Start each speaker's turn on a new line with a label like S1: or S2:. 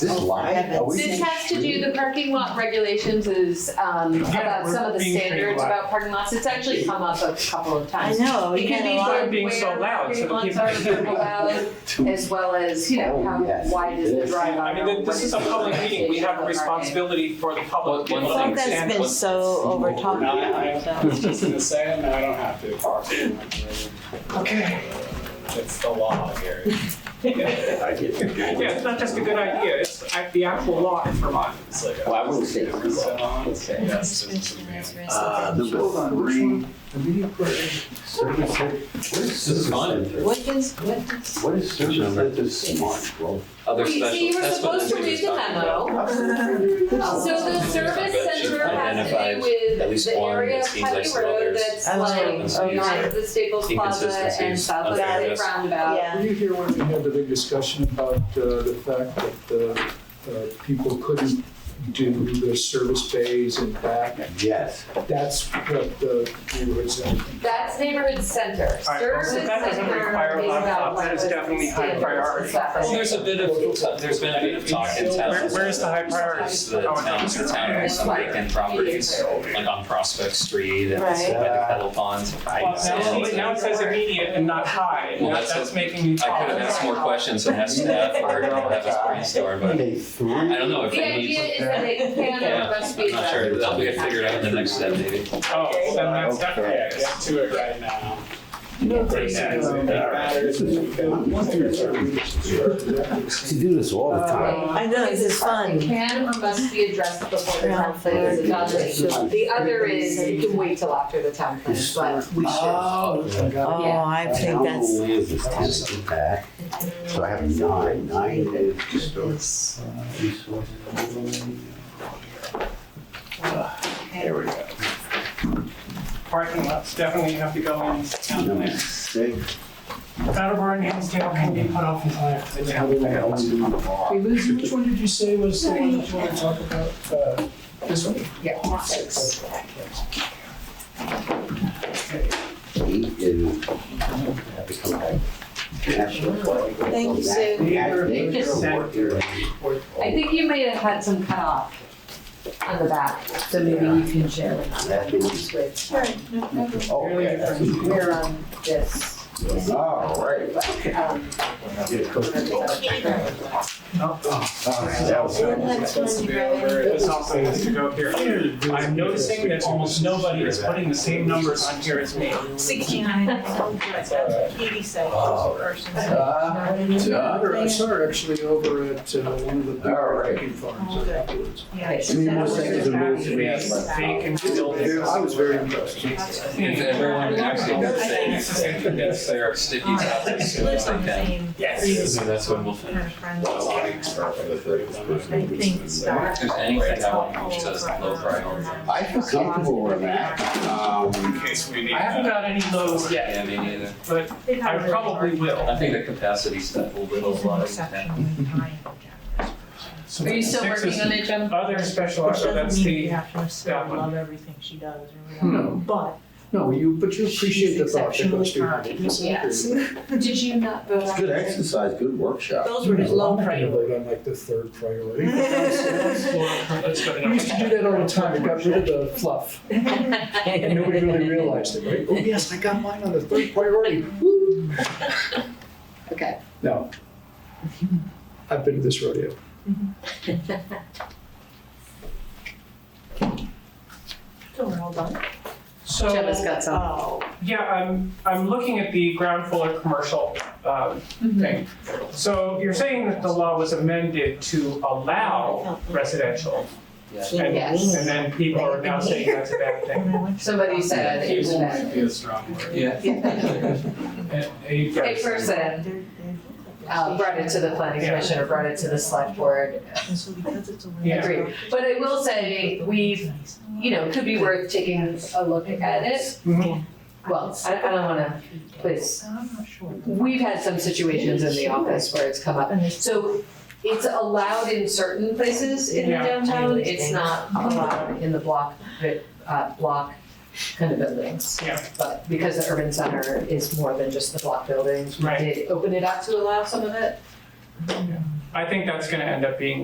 S1: This
S2: Oh,
S1: line, are we
S2: heavens.
S3: This
S1: saying
S3: has to do,
S1: street?
S3: the parking lot regulations is um,
S4: Yeah,
S3: about
S4: we're
S3: some of the
S4: being trained
S3: standards
S4: a lot.
S3: about parking lots. It's actually come up a couple of
S2: I
S3: times.
S2: know,
S3: It
S2: you
S3: can
S2: get a
S3: be
S2: lot.
S4: Stop being so
S3: where
S4: loud so
S3: parking
S4: that
S3: lots
S4: people-
S3: are allowed, as well as, you know,
S1: Oh,
S3: how
S1: yes,
S3: wide is the
S1: this.
S3: drive aisle?
S4: I mean, th- this is a public meeting, we have a responsibility for the public.
S5: One- one
S4: people to
S5: thing-
S2: Something's
S4: understand
S2: been
S5: what-
S2: so over
S5: what
S2: talked
S5: we're doing.
S2: about,
S5: I
S2: so.
S5: was just gonna say, it, now I don't have to.
S4: what- Okay,
S5: It's the law, Gary.
S1: I get
S4: yeah, it's not just a good idea, it's uh, the actual law in Vermont.
S5: It's like a-
S1: Well, I wouldn't say it's the law.
S5: It's a- Yes, it's an advantage.
S1: Uh, number three. Service center, what is service center?
S2: What is, what uh, is?
S1: What is service center smart? Well,
S5: Other
S3: Wait, so you
S5: special,
S3: were
S5: that's what
S3: supposed to
S5: the
S3: read
S5: lady's
S3: the
S5: talking about.
S3: memo. So the service
S5: But she
S3: center has to
S5: identified
S3: do with
S5: at least
S3: the
S5: one
S3: area
S5: that
S3: of
S5: seems like
S3: Putney
S5: some
S3: Road
S5: others.
S3: that's
S2: Oh,
S3: like,
S2: okay.
S3: not the Staples Plaza and
S5: Inconsistencies,
S3: South Atlantic
S5: unfairness.
S3: Roundabout.
S2: Yeah.
S6: Were you here when we had the big discussion about uh, the fact that uh, uh, people couldn't do the service bays and back?
S1: yes.
S6: That's what uh, the neighborhood center.
S3: That's neighborhood center.
S4: All right, well,
S3: Service
S4: so
S3: center
S4: that doesn't require a
S3: is
S4: lot of
S3: about
S4: thought. That is
S3: what
S4: definitely high
S3: standards
S4: priority.
S3: and stuff.
S5: Well, there's a bit of, there's been a bit of talk in town.
S4: Where- where is the high priority?
S5: There's The town, the town has some vacant properties, like on Prospect Street and by
S2: Right.
S5: the Pebble Pond.
S4: Well, now, it- now it says immediate and not high,
S5: Well,
S4: Now
S5: that's
S4: that's
S5: a-
S4: making me
S5: I
S4: talk.
S5: could have asked more questions and asked staff or have us brainstorm, but
S1: Okay,
S5: I
S1: three.
S5: don't know if
S3: The
S5: it needs.
S3: idea is that it can or
S5: Yeah,
S3: must be.
S5: I'm not sure, that'll be figured out in the next step maybe.
S4: Oh, then that's definitely.
S1: Okay.
S4: Get to it right now.
S1: You do this all the time.
S2: I know, this is fun.
S3: It can or must be addressed before the town plan is
S1: Yeah.
S3: adopted. The other is, you can wait till after the town plan, but
S6: Oh, I got
S2: Oh, I think
S1: How
S2: that's,
S1: long is this tennis and back? So I have nine, nine is just a resource. There we go.
S4: Parking lots definitely have to go in town
S1: Number
S4: plan.
S1: six.
S4: Attleboro and Hinsdale can be put off until after the town plan.
S6: it. Hey, Liz, which one did you say was the one that you want to talk about? Uh, This one? Uh,
S3: yeah, six.
S1: Eight is. have to come back. National flag.
S2: Thank you, Sue.
S1: Nature, nature, work here.
S3: I think you may have had some cut off on the back, so maybe you can share with us.
S1: That is- Oh, okay, that's-
S3: We're on this.
S1: All right.
S3: um,
S1: All right, that was good.
S2: that's when you
S4: This also needs to go up here. I'm noticing that almost nobody is putting the same numbers on here as me.
S7: Sixty-nine, eighty-seven persons.
S1: Uh,
S6: Over- I saw her actually over at uh, one of the big
S1: All right.
S6: parking
S7: Oh,
S6: farms afterwards.
S4: Vacant buildings.
S6: I was very impressed.
S5: If everyone actually did say, yes, there are sticky topics. so
S7: Lives on the
S5: okay.
S7: same.
S4: Yes.
S5: So that's when we'll
S7: Kind
S5: finish.
S7: of friends. I think
S5: If there's anything I want, which says low priority.
S1: I feel comfortable with that. Um,
S4: I haven't got any lows yet,
S5: Yeah, me neither.
S4: but I probably will.
S5: I think the capacity stuff will build a lot of intent.
S3: Are you still
S4: Six is-
S3: working on it, Jim?
S4: Other special,
S7: Which
S4: so that's
S7: doesn't mean you
S4: the,
S7: have to necessarily love everything she does or
S6: No.
S7: whatever, but
S6: No, you, but you appreciate the thought that goes behind it.
S7: She's
S3: Yes. Did you not vote
S1: It's
S3: on
S1: good
S3: it?
S1: exercise, good workshop.
S7: those were his low priorities.
S6: I'm like the third priority.
S4: let's go to
S6: We used to do
S4: number.
S6: that all the time, we got rid of the fluff, and nobody really realized it, right? Oh, yes, I got mine on the third priority.
S3: Okay.
S6: No. I've been to this rodeo.
S7: So we're all done.
S4: So.
S3: Jim has got some.
S7: Oh,
S4: Yeah, I'm, I'm looking at the ground floor commercial um,
S3: Mm-hmm.
S4: thing. So you're saying that the law was amended to allow residential? and-
S3: Yes.
S4: And then people are now saying that's a bad thing?
S7: and I went to-
S3: Somebody said it was bad.
S5: be a strong word. Yeah.
S4: A
S3: A person
S7: They're- they're-
S3: uh, brought it to the planning commission or brought it to the select board.
S7: And so because it's a.
S4: Yeah.
S3: Agreed. But I will say, we, you know, could be worth taking a look at it.
S4: Mhm.
S3: Well, I, I don't wanna, please,
S7: I'm not sure.
S3: we've had some situations in the office where it's come up.
S7: And it's-
S3: So it's allowed in certain places in the
S4: Yeah. Uh-huh.
S3: downtown, it's not allowed in the block, uh, block kind of buildings.
S4: Yeah.
S3: But because the urban center is more than just the block buildings, we
S4: Right.
S3: did open it up to allow some of it.
S4: I think that's gonna end up being